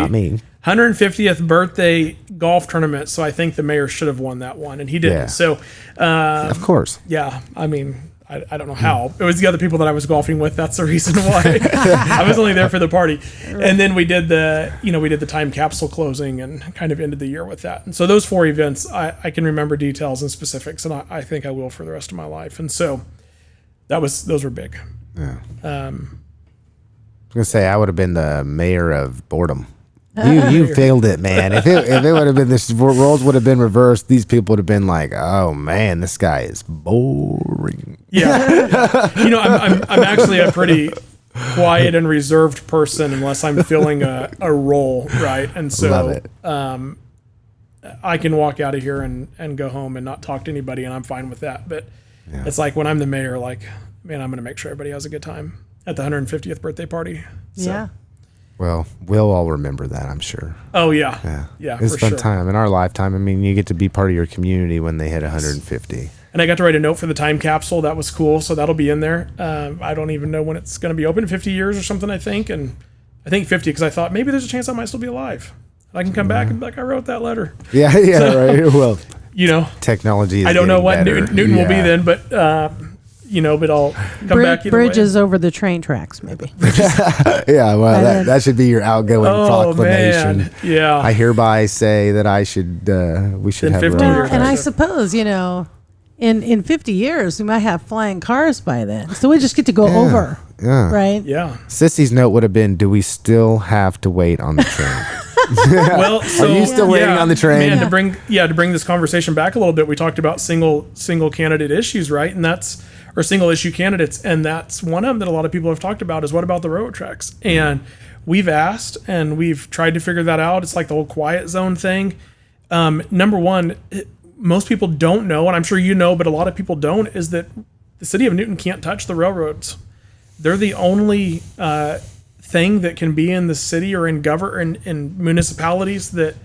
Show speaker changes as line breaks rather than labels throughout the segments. Not me.
150th birthday golf tournament. So I think the mayor should have won that one, and he didn't.
Yeah.
So, uh,
Of course.
yeah, I mean, I, I don't know how. It was the other people that I was golfing with. That's the reason why I was only there for the party. And then we did the, you know, we did the time capsule closing and kind of ended the year with that. And so those four events, I, I can remember details and specifics, and I, I think I will for the rest of my life. And so that was those were big.
I was gonna say I would have been the mayor of boredom. You you failed it, man. If it if it would have been this roles would have been reversed, these people would have been like, oh man, this guy is boring.
Yeah. you know, I'm, I'm, I'm actually a pretty quiet and reserved person unless I'm filling a, a role, right? And
Love
so
it.
I can walk out of here and, and go home and not talk to anybody, and I'm fine with that. But it's like when I'm the mayor, like, man, I'm going to make sure everybody has a good time at the 150th birthday party. So,
Yeah.
Well, we'll all remember that, I'm sure.
Oh, yeah. Yeah,
it's
for
a fun
sure.
time in our lifetime. I mean, you get to be part of your community when they hit 150.
And I got to write a note for the time capsule. That was cool. So that'll be in there. Um, I don't even know when it's going to be open 50 years or something, I think. And I think 50 because I thought maybe there's a chance I might still be alive. And I can come back and be like, I wrote that letter.
Yeah, yeah, right. Well,
You know,
technology. Is
I don't know
getting
what
better.
Newton, Newton will be
Yeah.
then, but, uh, you know, but I'll come
Brid-
back either way.
bridges over the train tracks, maybe.
Yeah, well, that,
then-
that should be your outgoing
Oh,
proclamation.
man. Yeah.
I hereby say that I should. Uh, we should
Then
have.
50
road
years.
cars.
and I suppose you know, in in fifty years we might have flying cars by then, so we just get to go over,
yeah.
right?
yeah.
Sissy's note would have been, "Do we still have to wait on the train?"
well, so,
you still waiting on the train?
Man,
Yeah.
to bring yeah to bring this conversation back a little bit, we talked about single single candidate issues, right? And that's or single issue candidates, and that's one of them that a lot of people have talked about is what about the railroad tracks?
Mm-hmm.
And we've asked and we've tried to figure that out. It's like the whole quiet zone thing. Um, number one, it- most people don't know, and I'm sure you know, but a lot of people don't, is that the city of Newton can't touch the railroads. They're the only uh, thing that can be in the city or in govern in, in municipalities that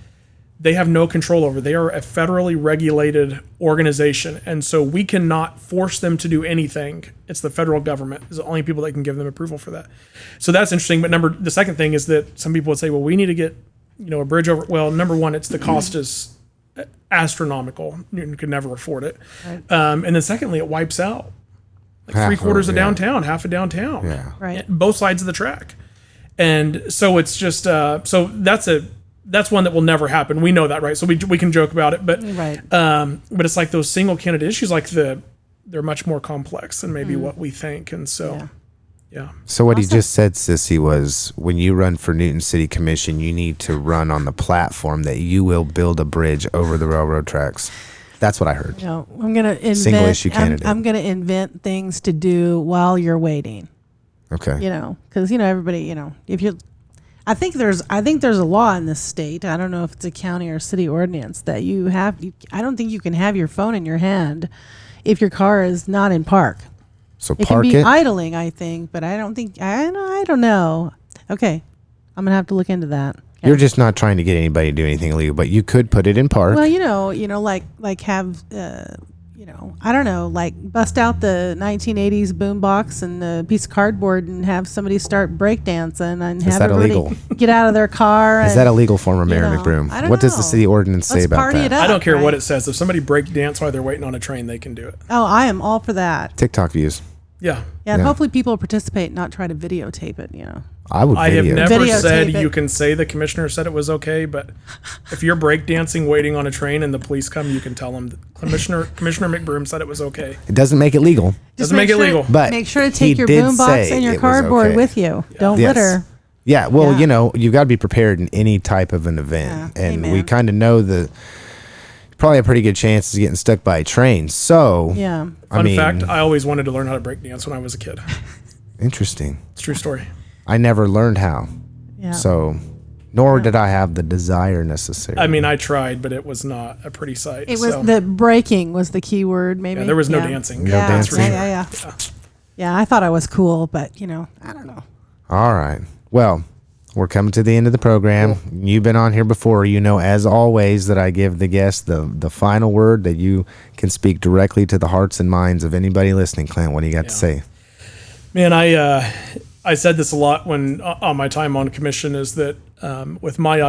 they have no control over. They are a federally regulated organization, and so we cannot force them to do anything. It's the federal government is the only people that can give them approval for that. So that's interesting. But number the second thing is that some people would say, well, we need to get you know a bridge over. Well, number one, it's the cost is astronomical. Newton could never afford it. Um, and then secondly, it wipes out like
Half
three
of-
quarters of
yeah.
downtown, half of downtown
Yeah.
Right.
both sides of the track. And so it's just uh, so that's a that's one that will never happen. We know that, right? So we, we can joke about it, but
Right.
um, but it's like those single candidate issues, like the they're much more complex than maybe what we think. And so
Mm. Yeah.
yeah,
So what he just said, Sissy, was when you run for Newton City Commission, you need to run on the platform that you will build a bridge over the railroad tracks. That's what I heard.
No, I'm gonna invent.
issue
I'm-
candidate.
I'm, gonna invent things to do while you're waiting.
Okay.
You know, because you know everybody. You know, if you, I think there's I think there's a law in this state. I don't know if it's a county or city ordinance that you have. You, I don't think you can have your phone in your hand if your car is not in park.
So
It
park
can be
it.
idling, I think, but I don't think I don't, I don't know. Okay, I'm gonna have to look into that. Okay.
You're just not trying to get anybody to do anything illegal, but you could put it in park.
Well, you know, you know, like like have uh, you know, I don't know, like bust out the 1980s boombox and a piece of cardboard and have somebody start breakdancing and have
that
everybody
illegal?
get out of their car.
Is
and
that illegal form of Mayor
know,
McBroom?
I don't
What does the
know.
city ordinance say
Let's
about
party
that?
it up.
I don't care what
right?
it says. If somebody break dance while they're waiting on a train, they can do it.
Oh, I am all for that.
TikTok views.
Yeah,
Yeah, and
Yeah.
hopefully people participate, not try to videotape it. You know,
I would.
I have
video.
never
Videotape
said
it.
you can say the commissioner said it was okay, but if you're breakdancing waiting on a train and the police come, you can tell them that commissioner Commissioner McBroom said it was okay.
It doesn't make it legal.
just
Doesn't make it
sure-
legal.
But
make sure to
he
take your
did
boombox
say
and
it
your
was
cardboard
okay.
with you. Don't
Yes.
litter.
Yeah, well,
Yeah.
you know, you've got to be prepared in any type of an event,
Yeah.
and
Hey,
we
man.
kind of know the probably a pretty good chance is getting stuck by a train. So,
Yeah.
I
Fun
mean,
fact: I always wanted to learn how to break dance when I was a kid.
interesting.
It's a true story.
I never learned how,
Yeah.
so nor did I have the desire necessarily.
I mean, I tried, but it was not a pretty sight.
It was
so-
the breaking was the key word. Maybe
Yeah, there was no dancing. No
yeah,
dancing.
Yeah, yeah, yeah. Yeah, I thought I was cool, but you know, I don't know.
All right. Well, we're coming to the end of the program. You've been on here before. You know, as always, that I give the guests the, the final word that you can speak directly to the hearts and minds of anybody listening. Clint, what do you got to say?
Man, I uh, I said this a lot when on my time on commission is that um, with my